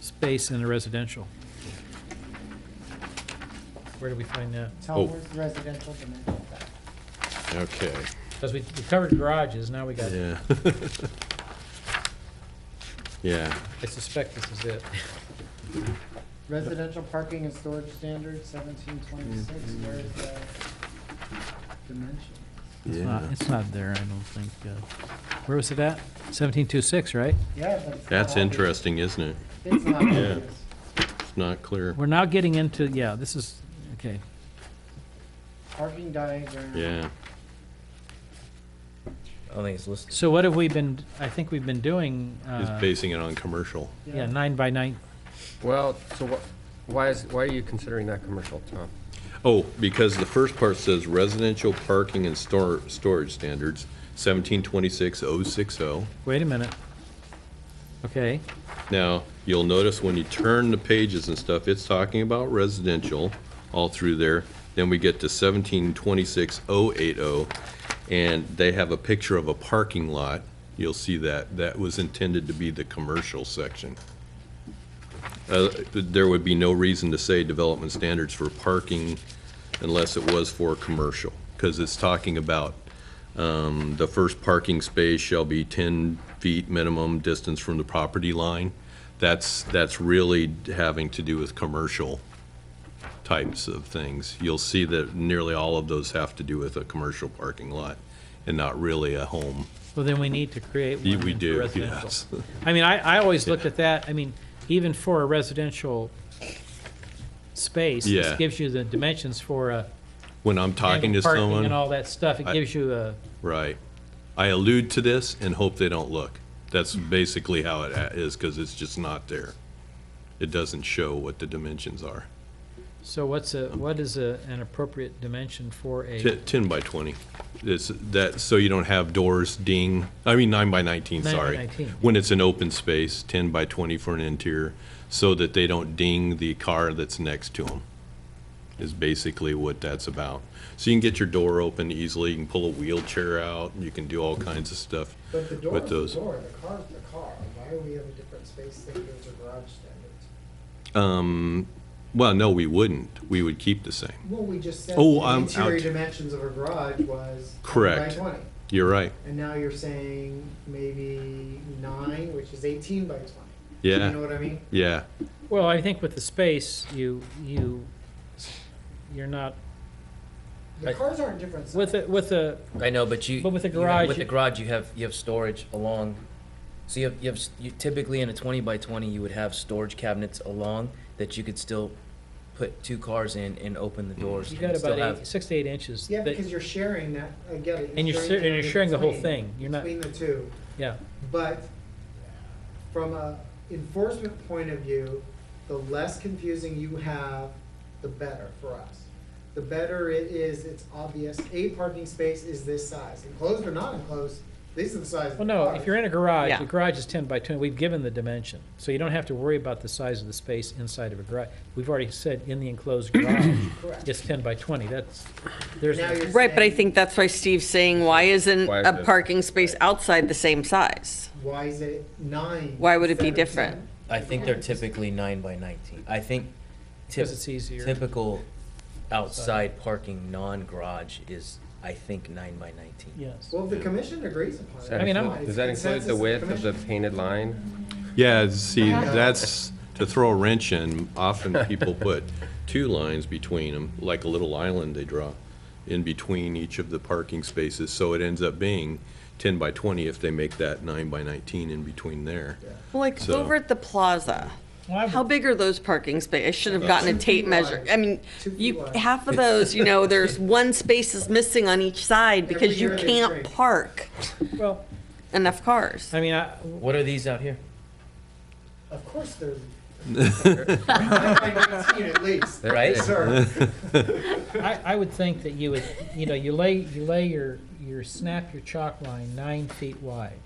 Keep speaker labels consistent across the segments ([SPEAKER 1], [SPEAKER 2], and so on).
[SPEAKER 1] space in a residential. Where do we find that?
[SPEAKER 2] Oh.
[SPEAKER 3] Tell where's the residential dimension of that.
[SPEAKER 2] Okay,
[SPEAKER 1] Because we we covered garages, now we got,
[SPEAKER 2] yeah. Yeah,
[SPEAKER 1] I suspect this is it.
[SPEAKER 3] Residential parking and storage standard seventeen twenty-six, where's the dimension?
[SPEAKER 1] It's not,
[SPEAKER 2] yeah.
[SPEAKER 1] it's not there, I don't think. uh, Where was it at? 1726, right?
[SPEAKER 3] Yeah, but it's not
[SPEAKER 2] That's
[SPEAKER 3] obvious.
[SPEAKER 2] interesting, isn't it?
[SPEAKER 3] It's not obvious.
[SPEAKER 2] It's not clear.
[SPEAKER 1] We're now getting into, yeah, this is, okay.
[SPEAKER 3] Parking diagram.
[SPEAKER 2] Yeah,
[SPEAKER 4] I don't think it's listed.
[SPEAKER 1] So what have we been, I think we've been doing,
[SPEAKER 2] he's
[SPEAKER 1] uh,
[SPEAKER 2] basing it on commercial.
[SPEAKER 1] yeah, nine by nine.
[SPEAKER 5] Well, so wh- why is, why are you considering that commercial, Tom?
[SPEAKER 2] Oh, because the first part says residential parking and stor- storage standards, seventeen twenty-six oh six oh.
[SPEAKER 1] Wait a minute. Okay,
[SPEAKER 2] Now, you'll notice when you turn the pages and stuff, it's talking about residential all through there. Then we get to seventeen twenty-six oh eight oh, and they have a picture of a parking lot. You'll see that. That was intended to be the commercial section. Uh, There would be no reason to say development standards for parking unless it was for commercial, because it's talking about um, The first parking space shall be 10 feet minimum distance from the property line. That's, that's really having to do with commercial types of things. You'll see that nearly all of those have to do with a commercial parking lot and not really a home.
[SPEAKER 1] well then we need to create one
[SPEAKER 2] We
[SPEAKER 1] then for
[SPEAKER 2] do,
[SPEAKER 1] residential.
[SPEAKER 2] yes.
[SPEAKER 1] I mean, I, I always looked at that, I mean, even for a residential space, this
[SPEAKER 2] Yeah.
[SPEAKER 1] gives you the dimensions for a
[SPEAKER 2] When I'm talking to
[SPEAKER 1] parking and
[SPEAKER 2] someone,
[SPEAKER 1] all that stuff, it
[SPEAKER 2] I-
[SPEAKER 1] gives you a,
[SPEAKER 2] right, I allude to this and hope they don't look. That's basically how it a- is, because it's just not there. It doesn't show what the dimensions are.
[SPEAKER 1] so what's a, what is a, an appropriate dimension for a?
[SPEAKER 2] Ten, 10 by 20. It's that, so you don't have doors ding, I mean, nine by 19,
[SPEAKER 1] Nine by
[SPEAKER 2] sorry.
[SPEAKER 1] 19.
[SPEAKER 2] When it's an open space, 10 by 20 for an interior, so that they don't ding the car that's next to them, is basically what that's about. So you can get your door open easily, you can pull a wheelchair out, and you can do all kinds of stuff.
[SPEAKER 3] But the
[SPEAKER 2] door With is the those-
[SPEAKER 3] door, the car's the car. Why do we have a different space standards or garage standards?
[SPEAKER 2] Um, Well, no, we wouldn't. We would keep the same.
[SPEAKER 3] Well, we just said
[SPEAKER 2] Oh,
[SPEAKER 3] the
[SPEAKER 2] I'm
[SPEAKER 3] interior
[SPEAKER 2] out.
[SPEAKER 3] dimensions of a garage was
[SPEAKER 2] Correct.
[SPEAKER 3] 10 by 20.
[SPEAKER 2] You're right.
[SPEAKER 3] And now you're saying maybe nine, which is 18 by 20. You know
[SPEAKER 2] Yeah,
[SPEAKER 3] what I mean?
[SPEAKER 2] yeah.
[SPEAKER 1] Well, I think with the space, you, you, you're not,
[SPEAKER 3] The
[SPEAKER 4] Right.
[SPEAKER 3] cars aren't different.
[SPEAKER 1] with a, with a,
[SPEAKER 4] I know, but you.
[SPEAKER 1] But with a
[SPEAKER 4] you know,
[SPEAKER 1] garage,
[SPEAKER 4] With
[SPEAKER 1] you-
[SPEAKER 4] the garage, you have, you have storage along, so you have, you have, s- you typically in a twenty by twenty, you would have storage cabinets along that you could still put two cars in and open the doors.
[SPEAKER 1] you
[SPEAKER 4] and
[SPEAKER 1] got
[SPEAKER 4] still
[SPEAKER 1] about eight,
[SPEAKER 4] have-
[SPEAKER 1] six to eight inches.
[SPEAKER 3] Yeah,
[SPEAKER 1] that-
[SPEAKER 3] because you're sharing that, I get it.
[SPEAKER 1] And you're, shar- and you're
[SPEAKER 3] that
[SPEAKER 1] sharing the whole
[SPEAKER 3] between-
[SPEAKER 1] thing, you're not,
[SPEAKER 3] Between the two,
[SPEAKER 1] yeah.
[SPEAKER 3] but from a enforcement point of view, the less confusing you have, the better for us. The better it is, it's obvious, a parking space is this size, enclosed or not enclosed, these are the sizes.
[SPEAKER 1] Well, no, if you're in a garage,
[SPEAKER 6] Yeah.
[SPEAKER 1] the garage is ten by twenty, we've given the dimension, so you don't have to worry about the size of the space inside of a garage. We've already said in the enclosed garage,
[SPEAKER 3] Correct.
[SPEAKER 1] it's ten by twenty, that's, there's,
[SPEAKER 3] Now you're
[SPEAKER 6] Right, but I
[SPEAKER 3] saying,
[SPEAKER 6] think that's why Steve's saying, why isn't
[SPEAKER 5] Why is
[SPEAKER 6] a
[SPEAKER 5] it-
[SPEAKER 6] parking space outside the same size?
[SPEAKER 3] Why is it nine?
[SPEAKER 6] Why would it be
[SPEAKER 3] instead of
[SPEAKER 6] different?
[SPEAKER 3] 10?
[SPEAKER 4] I think they're typically nine by nineteen. I think typ-
[SPEAKER 1] because it's easier.
[SPEAKER 4] typical outside parking, non-garage is, I think, nine by nineteen.
[SPEAKER 1] Yes.
[SPEAKER 3] Well, if the commission agrees upon it.
[SPEAKER 1] I mean, I'm-
[SPEAKER 3] it's
[SPEAKER 5] Does that include
[SPEAKER 3] consensus
[SPEAKER 5] the width of the
[SPEAKER 3] commission.
[SPEAKER 5] painted line?
[SPEAKER 2] Yeah, see, that's, to throw a wrench in, often people put two lines between them, like a little island they draw, in between each of the parking spaces, so it ends up being 10 by 20 if they make that 9 by 19 in between there.
[SPEAKER 6] Like
[SPEAKER 2] So-
[SPEAKER 6] over at the plaza,
[SPEAKER 1] Well, I-
[SPEAKER 6] how big are those parking space? I should have gotten a tape measure. I mean,
[SPEAKER 3] Two feet
[SPEAKER 6] you,
[SPEAKER 3] wide.
[SPEAKER 6] half of those, you know, there's one space is missing on each side
[SPEAKER 3] Every
[SPEAKER 6] because you
[SPEAKER 3] year they
[SPEAKER 6] can't
[SPEAKER 3] shrink.
[SPEAKER 6] park
[SPEAKER 1] Well,
[SPEAKER 6] enough cars.
[SPEAKER 1] I mean, I,
[SPEAKER 4] What are these out here?
[SPEAKER 3] Of course there's. At least,
[SPEAKER 5] They're
[SPEAKER 4] Right?
[SPEAKER 5] big.
[SPEAKER 3] sir.
[SPEAKER 1] I, I would think that you would, you know, you lay, you lay your, your, snap your chalk line nine feet wide,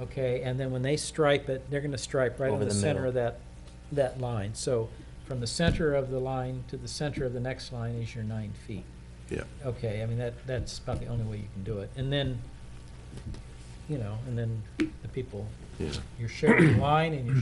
[SPEAKER 1] okay? And then when they stripe it, they're gonna stripe right on
[SPEAKER 4] Over
[SPEAKER 1] the
[SPEAKER 4] the
[SPEAKER 1] center
[SPEAKER 4] middle.
[SPEAKER 1] of that, that line. So from the center of the line to the center of the next line is your nine feet.
[SPEAKER 2] Yeah.
[SPEAKER 1] Okay, I mean, that, that's about the only way you can do it. And then, you know, and then the people,
[SPEAKER 2] Yeah.
[SPEAKER 1] you're sharing the line and you're